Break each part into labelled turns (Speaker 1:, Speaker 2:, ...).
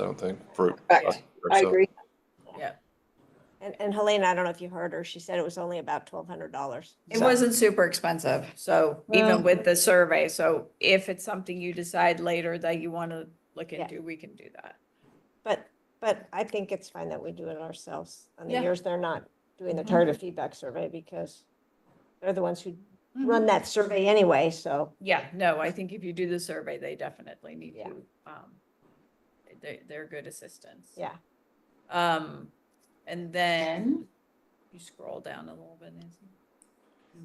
Speaker 1: I don't think. For,
Speaker 2: Correct. I
Speaker 1: so-
Speaker 2: agree.
Speaker 3: And, and Helena, I don't know if you heard her, she said it was only about twelve hundred dollars.
Speaker 2: It wasn't super expensive, so even with the survey, so if it's something you decide later that you want to look
Speaker 3: Yeah.
Speaker 2: into, we can do that.
Speaker 3: But, but I think it's fine that we do it ourselves on the
Speaker 2: Yeah. Mm-hmm.
Speaker 3: years they're not doing the target feedback survey because they're the ones who
Speaker 2: Mm-hmm.
Speaker 3: run that survey anyway, so.
Speaker 2: Yeah, no, I think if you do the survey, they definitely need
Speaker 3: Yeah.
Speaker 2: to, um, they, they're good assistance.
Speaker 3: Yeah.
Speaker 2: Um, and then you scroll down a little bit, Nancy.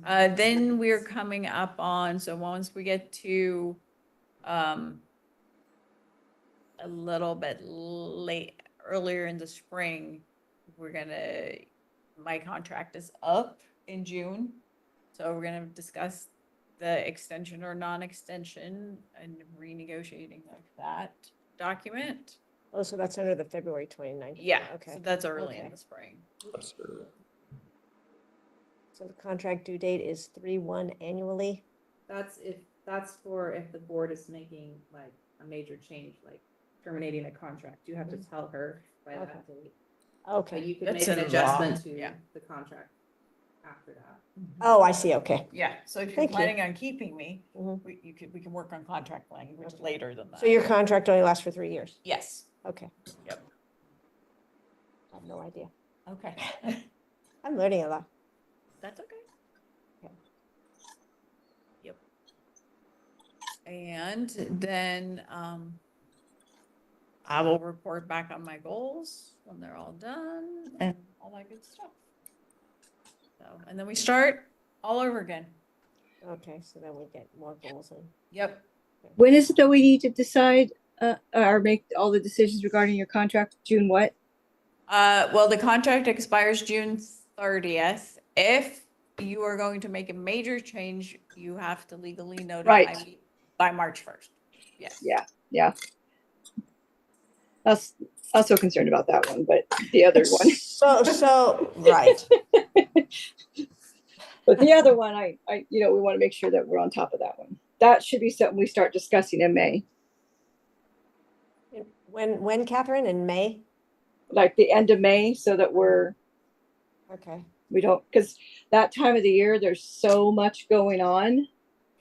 Speaker 2: Uh, then we're coming up on, so once we get to, um, a little bit late, earlier in the spring, we're gonna, my contract is up in June. So we're gonna discuss the extension or non-extension and renegotiating of that document.
Speaker 3: Oh, so that's under the February 29th.
Speaker 2: Yeah, so
Speaker 3: Okay.
Speaker 2: that's early in
Speaker 3: Okay.
Speaker 2: the spring.
Speaker 1: That's true.
Speaker 3: So the contract due date is three one annually.
Speaker 4: That's if, that's for if the board is making like a major change, like terminating a contract, you have to tell her by
Speaker 3: Okay.
Speaker 4: that date. So
Speaker 3: Okay.
Speaker 4: you could
Speaker 2: That's
Speaker 4: make an
Speaker 2: in law,
Speaker 4: adjustment to
Speaker 2: yeah.
Speaker 4: the contract after that.
Speaker 3: Oh, I see. Okay.
Speaker 2: Yeah, so if you're
Speaker 3: Thank you.
Speaker 2: planning on keeping me,
Speaker 3: Mhm.
Speaker 2: we, you could, we can work on contract language later than that.
Speaker 3: So your contract only lasts for three years.
Speaker 2: Yes,
Speaker 3: Okay.
Speaker 2: Yep.
Speaker 3: I have no idea.
Speaker 2: okay,
Speaker 3: I'm learning a lot.
Speaker 2: that's okay.
Speaker 3: Yeah.
Speaker 2: Yep. And then, um, I will report back on my goals when they're all done and all that good stuff. So, and then we start all over again.
Speaker 3: Okay, so then we get more goals and
Speaker 2: Yep.
Speaker 5: When is it that we need to decide uh, or make all the decisions regarding your contract? June what?
Speaker 2: Uh, well, the contract expires June thirtieth. If you are going to make a major change, you have to legally notify
Speaker 5: Right.
Speaker 2: me by March first. Yes.
Speaker 5: Yeah, yeah. That's also concerned about that one, but the other one,
Speaker 3: So, so, right.
Speaker 5: but the other one, I, I, you know, we want to make sure that we're on top of that one. That should be something we start discussing in May,
Speaker 3: When, when Catherine in May?
Speaker 5: like the end of May, so that we're
Speaker 3: Okay,
Speaker 5: we don't because that time of the year there's so much going on.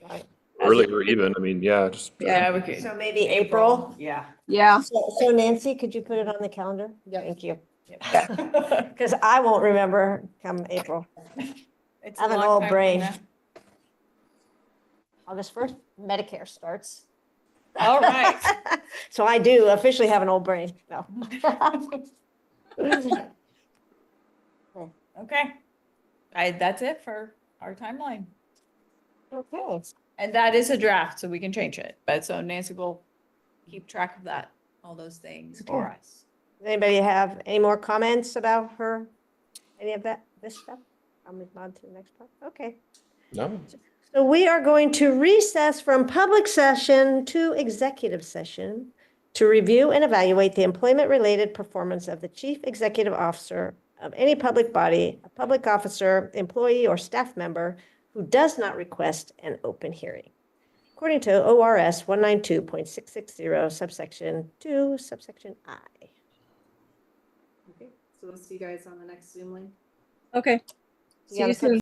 Speaker 3: right.
Speaker 1: Earlier even, I mean, yeah, just.
Speaker 2: Yeah, we could.
Speaker 3: So maybe April?
Speaker 2: Yeah.
Speaker 5: Yeah,
Speaker 3: So so Nancy, could you put it on the calendar?
Speaker 2: Yep.
Speaker 3: Thank you.
Speaker 2: It's
Speaker 3: Because I won't remember come April.
Speaker 2: a
Speaker 3: I have an
Speaker 2: long
Speaker 3: old
Speaker 2: time from
Speaker 3: brain.
Speaker 2: now.
Speaker 3: August 1st, Medicare starts.
Speaker 2: All right.
Speaker 3: So I do officially have an old brain. No.
Speaker 2: Okay. I, that's it for our timeline.
Speaker 3: Okay.
Speaker 2: And that is a draft, so we can change it. But so Nancy will keep track of that, all those things for us.
Speaker 3: Does Anybody have any more comments about her? Any of that, this stuff? I'll move on to the next part. Okay.
Speaker 1: No,
Speaker 3: So we are going to recess from public session to executive session to review and evaluate the employment-related performance of the chief executive officer of any public body, a public officer, employee, or staff member who does not request an open hearing. According to ORS 192.660 subsection 2 subsection I.
Speaker 4: Okay, so we'll see you guys on the next Zoom link.
Speaker 5: okay.
Speaker 3: You
Speaker 5: See
Speaker 3: gotta
Speaker 5: you
Speaker 3: put
Speaker 5: soon.